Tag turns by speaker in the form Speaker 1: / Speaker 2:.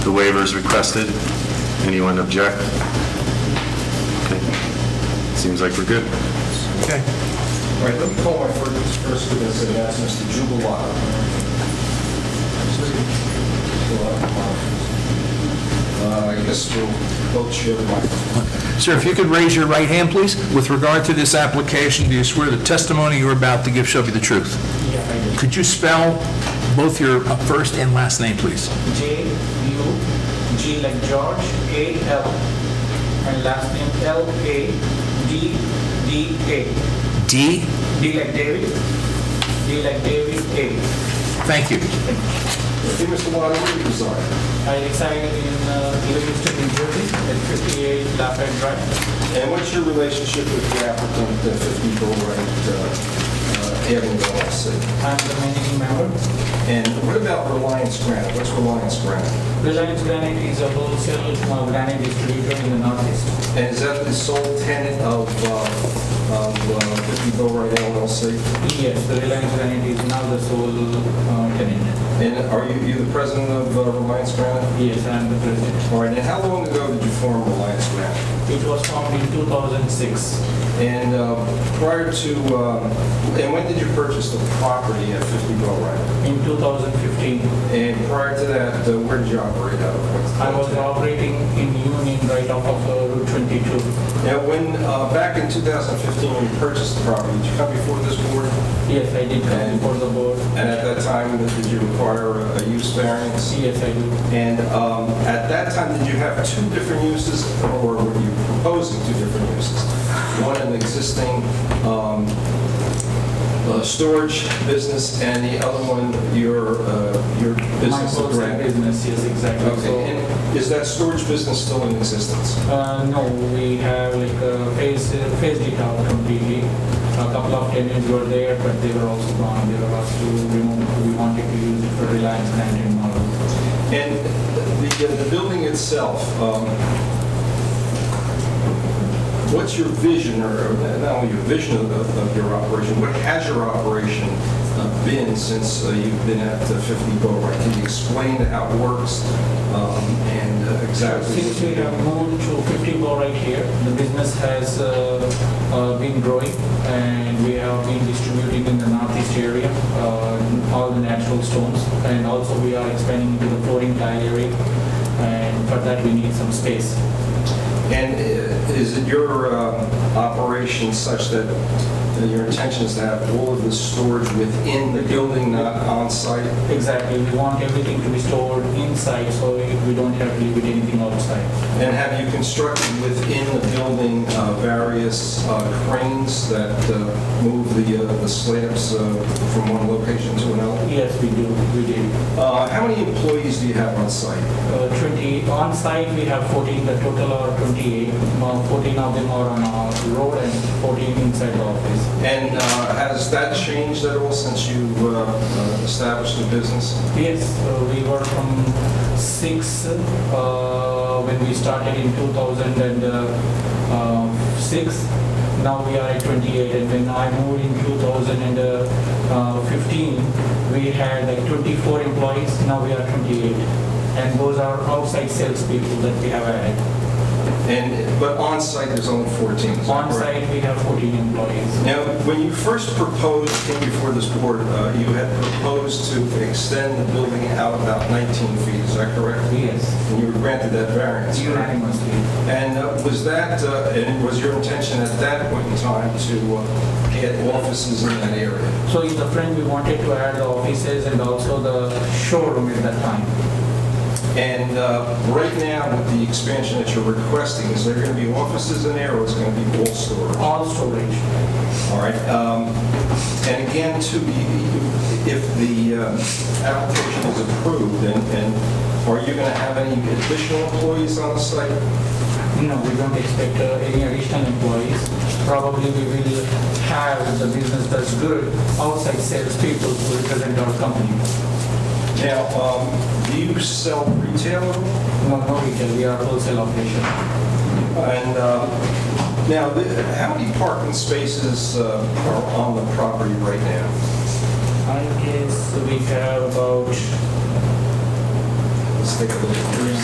Speaker 1: the waivers requested. Anyone object? Okay. Seems like we're good.
Speaker 2: Okay.
Speaker 3: All right, let me call my first, first witness, and that's Mr. Jubilar. Uh, I guess we'll both share the microphone.
Speaker 2: Sir, if you could raise your right hand, please. With regard to this application, do you swear the testimony you're about to give shall be the truth? Could you spell both your uh, first and last name, please?
Speaker 4: J U G like George A L and last name L A D D A
Speaker 2: D?
Speaker 4: D like David D like David A
Speaker 2: Thank you.
Speaker 3: Hey, Mr. Lawler, where do you reside?
Speaker 4: I reside in uh, Livingston, New Jersey at 58 Lafayette Drive.
Speaker 3: And what's your relationship with the applicant, uh, 50 Bullwright uh, uh, Avenue LLC?
Speaker 4: I'm the managing member.
Speaker 3: And what about Reliance Granite? What's Reliance Granite?
Speaker 4: Reliance Granite is a wholesale uh, granite distributor in the Northeast.
Speaker 3: And is that the sole tenant of uh, of, uh, 50 Bullwright LLC?
Speaker 4: Yes, the Reliance Granite is now the sole uh, tenant.
Speaker 3: And are you you the president of uh, Reliance Granite?
Speaker 4: Yes, I am the president.
Speaker 3: All right, and how long ago did you form Reliance Granite?
Speaker 4: It was formed in 2006.
Speaker 3: And uh, prior to, um, and when did you purchase the property at 50 Bow Ride?
Speaker 4: In 2015,
Speaker 3: And prior to that, uh, where did you operate out of?
Speaker 4: I was operating in Union right off of uh, Route 22.
Speaker 3: Now, when, uh, back in 2015, when you purchased the property, did you come before this board?
Speaker 4: Yes, I did come
Speaker 3: And-
Speaker 4: before the board.
Speaker 3: And at that time, did you require a use variance?
Speaker 4: Yes, I do.
Speaker 3: And um, at that time, did you have two different uses, or were you proposing two different uses? One, an existing um, uh, storage business, and the other one, your, uh, your
Speaker 4: My
Speaker 3: business of
Speaker 4: wholesale
Speaker 3: rent?
Speaker 4: business, yes, exactly.
Speaker 3: Okay,
Speaker 4: So,
Speaker 3: and is that storage business still in existence?
Speaker 4: uh, no, we have like uh, phased phased it out completely. A couple of tenants were there, but they were also gone. They were asked to remove, we wanted to use it for Reliance Grant and model.
Speaker 3: And the, the building itself, um, what's your vision, or not only your vision of, of- of your operation, what has your operation uh, been since uh, you've been at uh, 50 Boat Can you explain how it works um, and uh, exactly?
Speaker 4: Since we have moved uh, to 50 more right here, the business has uh, uh, been growing and we have been distributing in the northeast area, uh, all the natural stones. And also we are expanding into the flooring tile area and for that we need some space.
Speaker 3: And uh, is it your um, operation such that uh, your intention is to have all of the storage within the building, not on-site?
Speaker 4: Exactly, we want everything to be stored inside so we don't have to leave it anything outside.
Speaker 3: And have you constructed within the building uh, various uh, cranes that uh, move the uh, the slabs uh, from one location to another?
Speaker 4: Yes, we do, we do.
Speaker 3: Uh, How many employees do you have on site?
Speaker 4: Uh, 20, on site we have 14, the total are 28. Uh, 14 of them are on our road and 14 inside the office.
Speaker 3: And uh, has that changed at all since you uh, uh, established the business?
Speaker 4: Yes, uh, we were from 6 uh, when we started in 2006. uh, Now we are at 28 and when I moved in 2015, uh, we had like 24 employees, now we are 28. And those are outside salespeople that we have added.
Speaker 3: And, but on site, there's only 14, is that
Speaker 4: On
Speaker 3: correct?
Speaker 4: site we have 14 employees.
Speaker 3: Now, when you first proposed, came before this board, uh, you had proposed to extend the building out about 19 feet, is that correct?
Speaker 4: Yes,
Speaker 3: And you were granted that variance, correct?
Speaker 4: unanimously.
Speaker 3: And uh, was that, uh, and was your intention at that point in time to uh, get offices in that area?
Speaker 4: So in the front, we wanted to add the offices and also the showroom at that time.
Speaker 3: And uh, right now, with the expansion that you're requesting, is there going to be offices in there, or is it going to be all storage? All
Speaker 4: All storage.
Speaker 3: right. um, And again, to be, if the uh, application is approved, and and are you going to have any additional employees on the site?
Speaker 4: No, we don't expect uh, any additional employees. Probably we will have the business that's good outside salespeople who represent our company.
Speaker 3: Now, um, do you sell retail?
Speaker 4: No, no retail, we are wholesale operation.
Speaker 3: And uh, now, th- how many parking spaces uh, are on the property right now?
Speaker 4: I guess we have about
Speaker 3: let's take a look.